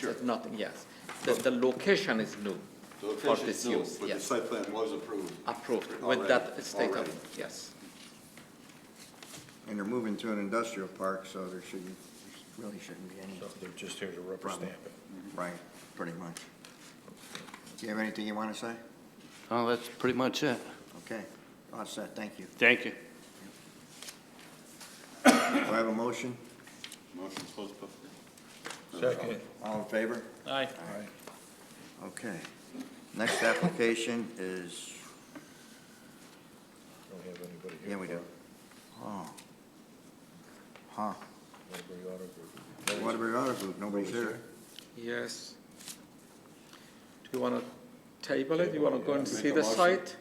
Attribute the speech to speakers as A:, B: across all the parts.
A: There's nothing, yes. The, the location is new
B: The
A: for
B: location
A: this
B: is new,
A: use,
B: but the
A: yes,
B: site plan was approved.
C: Uh,
A: approved
B: Already,
A: with that state
B: already.
A: of, yes.
C: And they're moving to an industrial park, so there shouldn't, really shouldn't be any,
D: So they're just here to rubber
C: Problem.
D: stamp it.
C: right, pretty much. Do you have anything you want to say?
E: Oh, that's pretty much it.
C: Okay, all set, thank you.
E: Thank you.
C: Do I have a motion?
B: Motion to close public hearing.
D: Second.
C: All in favor?
E: Aye.
C: Okay. Next application is,
D: Don't have anybody here.
C: yeah, we do. Oh. Huh,
D: Nobody ought to-
C: Waterbury Auto Group, nobody's here.
A: Yes. Do you want to table it? You want to go and
B: Make
A: see
B: a
A: the
B: motion.
A: site?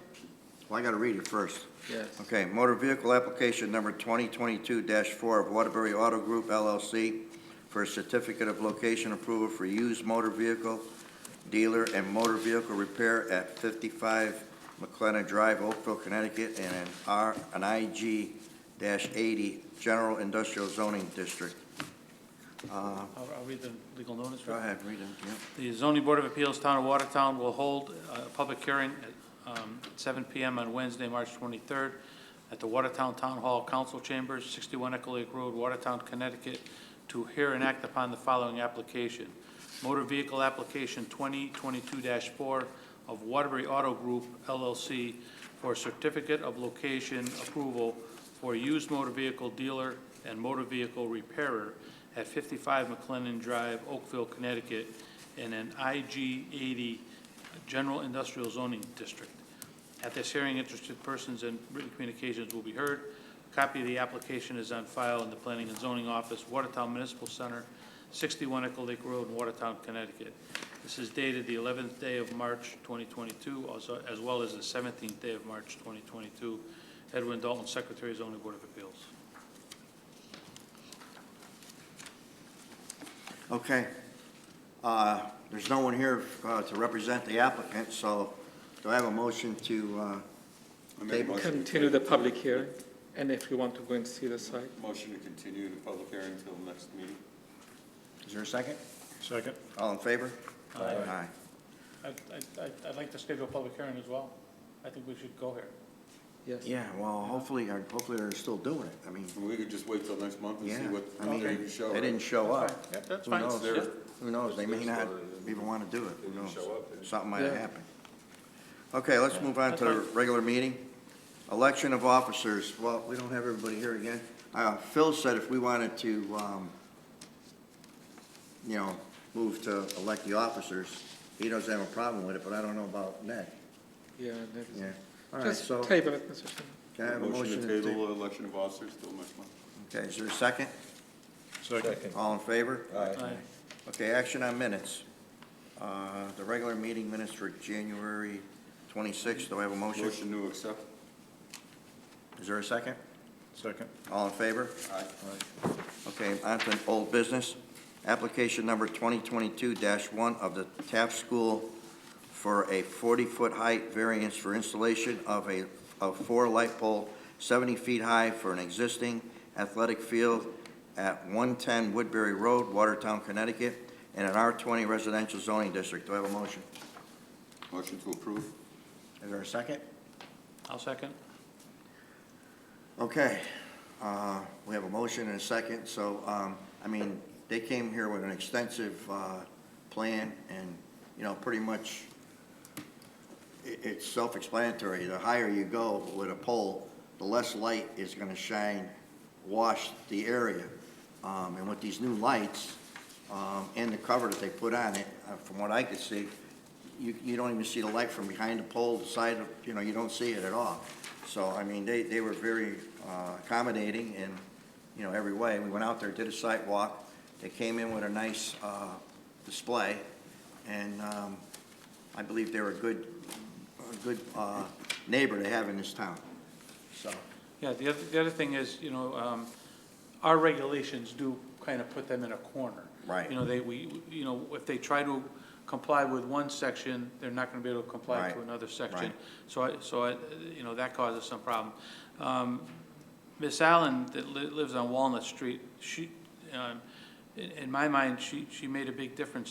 C: Well, I gotta read it first.
A: Yes.
C: Okay, motor vehicle application number 2022-4 of Waterbury Auto Group LLC for a certificate of location approval for used motor vehicle dealer and motor vehicle repair at 55 McLennan Drive, Oakville, Connecticut, and an R, an IG-80 General Industrial Zoning District. Uh,
F: I'll I'll read the legal notice.
C: Go ahead, read it, yeah.
F: The zoning board of appeals, town of Watertown, will hold a public hearing at um, 7 PM on Wednesday, March 23rd, at the Watertown Town Hall Council Chambers, 61 Echo Lake Road, Watertown, Connecticut, to hear and act upon the following application. Motor Vehicle Application 2022-4 of Waterbury Auto Group LLC for a certificate of location approval for a used motor vehicle dealer and motor vehicle repairer at 55 McLennan Drive, Oakville, Connecticut, in an IG-80 General Industrial Zoning District. At this hearing, interested persons and written communications will be heard. A Copy of the application is on file in the Planning and Zoning Office, Watertown Municipal Center, 61 Echo Lake Road, Watertown, Connecticut. This is dated the 11th day of March 2022, also- as well as the 17th day of March 2022. Edwin Dalton, Secretary, Zoning Board of Appeals.
C: Okay. Uh, There's no one here uh, to represent the applicant, so do I have a motion to uh,
B: I make a motion to
A: Continue the
B: table-
A: public hearing, and if you want to go and see the site.
B: Motion to continue the public hearing until the next meeting.
C: Is there a second?
D: Second.
C: All in favor? Aye.
F: I'd like to schedule a public hearing as well. I think we should go here.
A: Yes.
C: Yeah, well, hopefully, or hopefully they're still doing it. I mean,
B: And we could just wait till next month and
C: yeah,
B: see what,
C: I mean,
B: they can show.
C: they didn't show up.
F: Yep, that's
C: Who
F: fine.
C: knows?
F: Yep.
C: Who knows? They may not even want to do it. Who knows? Something might have happened. Okay, let's move on to the regular meeting. Election of officers. Well, we don't have everybody here again. Uh, Phil said if we wanted to, um, you know, move to elect the officers, he doesn't have a problem with it, but I don't know about Ned.
A: Yeah, that is-
C: Yeah. All right,
A: Just
C: so
A: table it, Mr. Chairman.
C: can I have a motion
B: to
C: to
B: table election of officers till next month.
C: Okay, is there a second?
D: Second.
C: All in favor?
F: Aye.
C: Okay, action on minutes. Uh, The regular meeting minutes for January 26th, do I have a motion?
B: Motion to accept.
C: Is there a second?
D: Second.
C: All in favor?
B: Aye.
C: Okay, on to old business. Application number 2022-1 of the Taft School for a 40-foot height variance for installation of a, of four light pole 70 feet high for an existing athletic field at 110 Woodbury Road, Watertown, Connecticut, in an R20 residential zoning district. Do I have a motion?
B: Motion to approve.
C: Is there a second?
F: I'll second.
C: Okay, uh, we have a motion and a second, so, um, I mean, they came here with an extensive, uh, plan and, you know, pretty much i it's self-explanatory. The higher you go with a pole, the less light is gonna shine, wash the area. Um, and with these new lights, um, and the cover that they put on it, uh, from what I could see, you, you don't even see the light from behind the pole, the side of, you know, you don't see it at all. So, I mean, they, they were very uh, accommodating in, you know, every way. We went out there, did a site walk. They came in with a nice, uh, display, and, um, I believe they're a good, a good, uh, neighbor to have in this town, so.
F: Yeah, the other, the other thing is, you know, um, our regulations do kind of put them in a corner.
C: Right.
F: You know, they, we, you know, if they try to comply with one section, they're not gonna be able to comply
C: Right.
F: to another section.
C: Right.
F: So I, so I, you know, that causes some problem. Um, Miss Allen that li- lives on Walnut Street, she, um, in, in my mind, she, she made a big difference